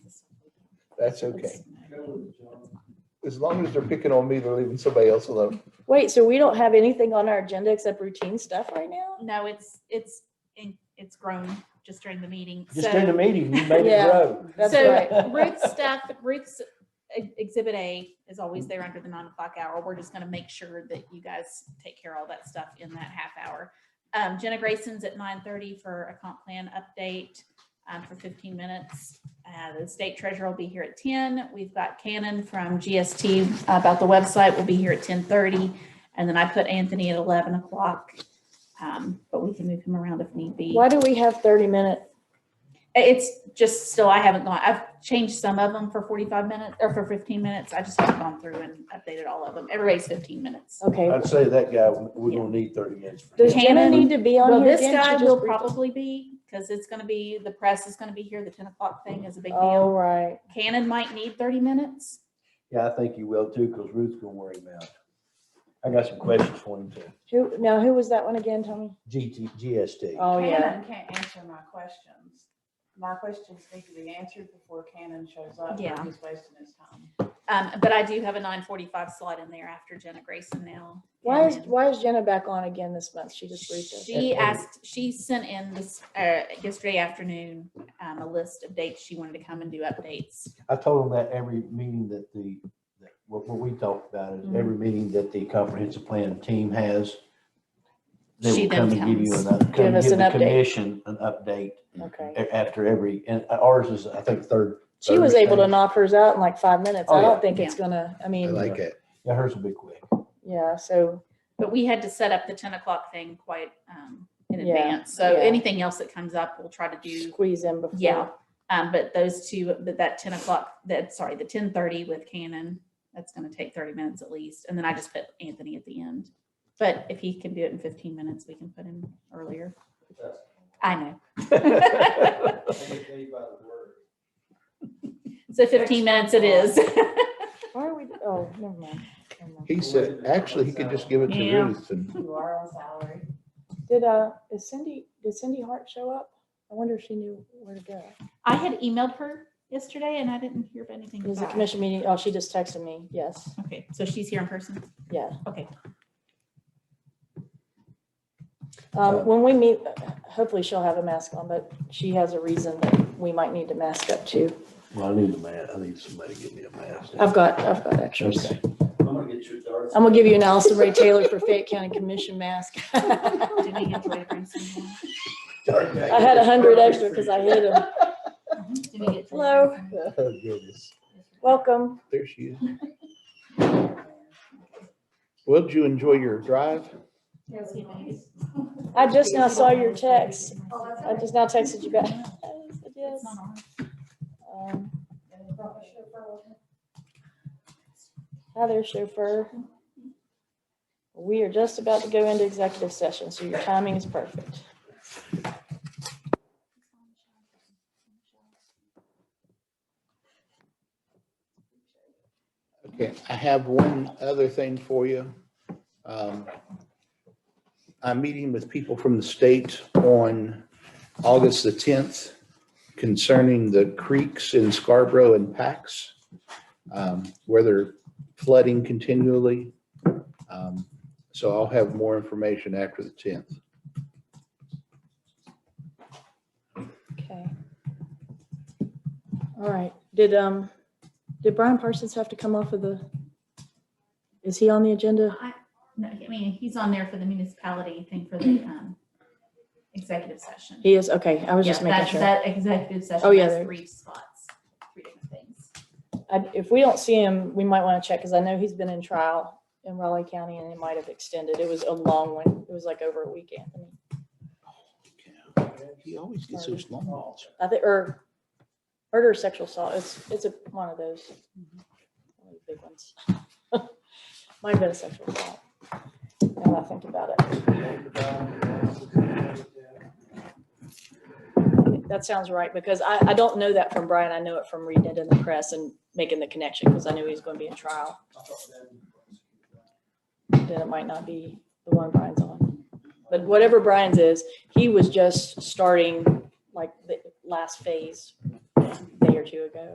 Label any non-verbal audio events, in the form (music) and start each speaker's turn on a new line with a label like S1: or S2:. S1: That's okay. As long as they're picking on me, they're leaving somebody else alone.
S2: Wait, so we don't have anything on our agenda except routine stuff right now?
S3: No, it's, it's, in- it's grown just during the meeting.
S4: Just in the
S3: So-
S4: meeting, you made it
S2: Yeah.
S4: grow.
S2: That's right. (laughs)
S3: So Ruth's stuff, Ruth's e- exhibit A is always there under the nine o'clock hour. We're just gonna make sure that you guys take care of all that stuff in that half hour. Um, Jenna Grayson's at nine thirty for a comp plan update, um, for fifteen minutes. Uh, the state treasurer will be here at ten. We've got Cannon from GST about the website. will be here at ten thirty. And then I put Anthony at eleven o'clock. Um, but we can move him around if need be.
S2: Why do we have thirty minute?
S3: It's just still, I haven't gone, I've changed some of them for forty-five minutes or for fifteen minutes. I just haven't gone through and updated all of them. Everybody's fifteen minutes.
S1: Uh,
S2: Okay,
S4: I'd say that guy, we don't need thirty minutes. for
S2: does
S4: him.
S2: Jenna
S3: Shannon-
S2: need to be on
S3: Well,
S2: here
S3: this
S2: again?
S3: guy
S2: She
S3: will
S2: just reached-
S3: probably be, because it's gonna be, the press is gonna be here, the ten o'clock thing is a big
S2: Oh,
S3: deal.
S2: right.
S3: Cannon might need thirty minutes.
S4: Yeah, I think you will too, because Ruth's gonna worry about. it. I got some questions for him too.
S2: Who, now who was that one again, Tommy?
S4: GT, GST.
S2: Oh, yeah.
S5: Cannon can't answer my questions. My questions need to be answered before Cannon shows up. or
S3: Yeah.
S5: He's wasting his time.
S3: Um, but I do have a nine forty-five slot in there after Jenna Grayson now.
S2: Why is,
S3: And
S2: why is Jenna back on again this month? She just briefed us.
S3: She asked, she sent in this, uh, yesterday afternoon, um, a list of dates she wanted to come and do updates.
S4: I told him that every meeting that the, that what, what we talked about is
S2: Mm-hmm.
S4: every meeting that the comprehensive plan team has. They
S3: She
S4: will come
S3: then
S4: and give you an,
S3: comes.
S4: up-
S2: Give
S4: come
S2: us
S4: give the
S2: an update.
S4: commission an update
S2: Okay.
S4: a- after every, and ours is, I think, third.
S2: She was
S4: Thursday.
S2: able to knock hers out in like five minutes.
S4: Oh,
S2: I
S4: yeah.
S2: don't think it's gonna, I mean,
S4: like
S1: it.
S4: Yeah, hers will be quick.
S2: yeah, so,
S3: But we had to set up the ten o'clock thing quite um in
S2: Yeah,
S3: advance, so
S2: yeah.
S3: anything else that comes up, we'll try to do,
S2: squeeze in before.
S3: yeah. Um, but those two, but that ten o'clock, that, sorry, the ten thirty with Canon, that's gonna take thirty minutes at least, and then I just put Anthony at the end. But if he can do it in fifteen minutes, we can put him earlier. I know,
S2: (laughs)
S3: so fifteen minutes it is.
S2: Why are we, oh, never mind. never mind.
S1: He said, actually, he could just give it to
S3: Yeah.
S1: Ruth and
S5: You are on salary.
S2: Did, uh, is Cindy, did Cindy Hart show up? I wonder if she knew where to go.
S3: I had emailed her yesterday and I didn't hear anything
S2: It was a
S3: back.
S2: commission meeting. Oh, she just texted me. Yes,
S3: Okay, so she's here in person,
S2: yeah.
S3: okay.
S2: Um, when we meet, hopefully she'll have a mask on, but she has a reason that we might need to mask up too.
S4: Well, I need a mask. I need somebody to give me a mask.
S2: I've got, I've got extras.
S4: Okay.
S6: I'm gonna get your darts.
S2: I'm gonna give you an Allison Ray Taylor for Fayette County Commission mask. (laughs) I
S3: Did we get Joy Grayson
S2: (laughs)
S3: one?
S2: had a hundred extra because I hid them.
S3: Uh-huh. Did we get Joy
S2: Hello.
S3: Grayson?
S1: Oh goodness,
S2: Welcome.
S1: there she is. Well, did you enjoy your drive?
S2: I just now saw your text. I just now texted you back. (laughs) Yes,
S3: It's not on.
S2: um, Hi there, chauffeur. We are just about to go into executive session, so your timing is perfect.
S1: Okay, I have one other thing for you. Um, I'm meeting with people from the state on August the 10th concerning the creeks in Scarborough and Pax, um, where they're flooding continually. Um, So I'll have more information after the 10th.
S2: Okay. All right, did, um, did Brian Parsons have to come off of the, is he on the agenda?
S3: I no, I mean, he's on there for the municipality thing for
S2: (clears throat)
S3: the um, executive session.
S2: He is, okay, I was
S3: Yeah,
S2: just making
S3: that-
S2: sure.
S3: That executive session.
S2: Oh, yeah,
S3: has
S2: there-
S3: Three spots, three different things.
S2: I- If we don't see him, we might want to check, because I know he's been in trial in Raleigh County and it might have extended. It was a long one. It was like over a week, Anthony.
S1: He always gets those long ones.
S2: I think, or murder or sexual assault, it's, it's a, one of those. One of the Big ones. (laughs) Might have been a sexual assault. Now that I think about it. That sounds right, because I, I don't know that from Brian. I know it from reading it in the press and making the connection, because I knew he was going to be in trial. Then it might not be the one Brian's on. But whatever Brian's is, he was just starting like the last phase a day or two ago.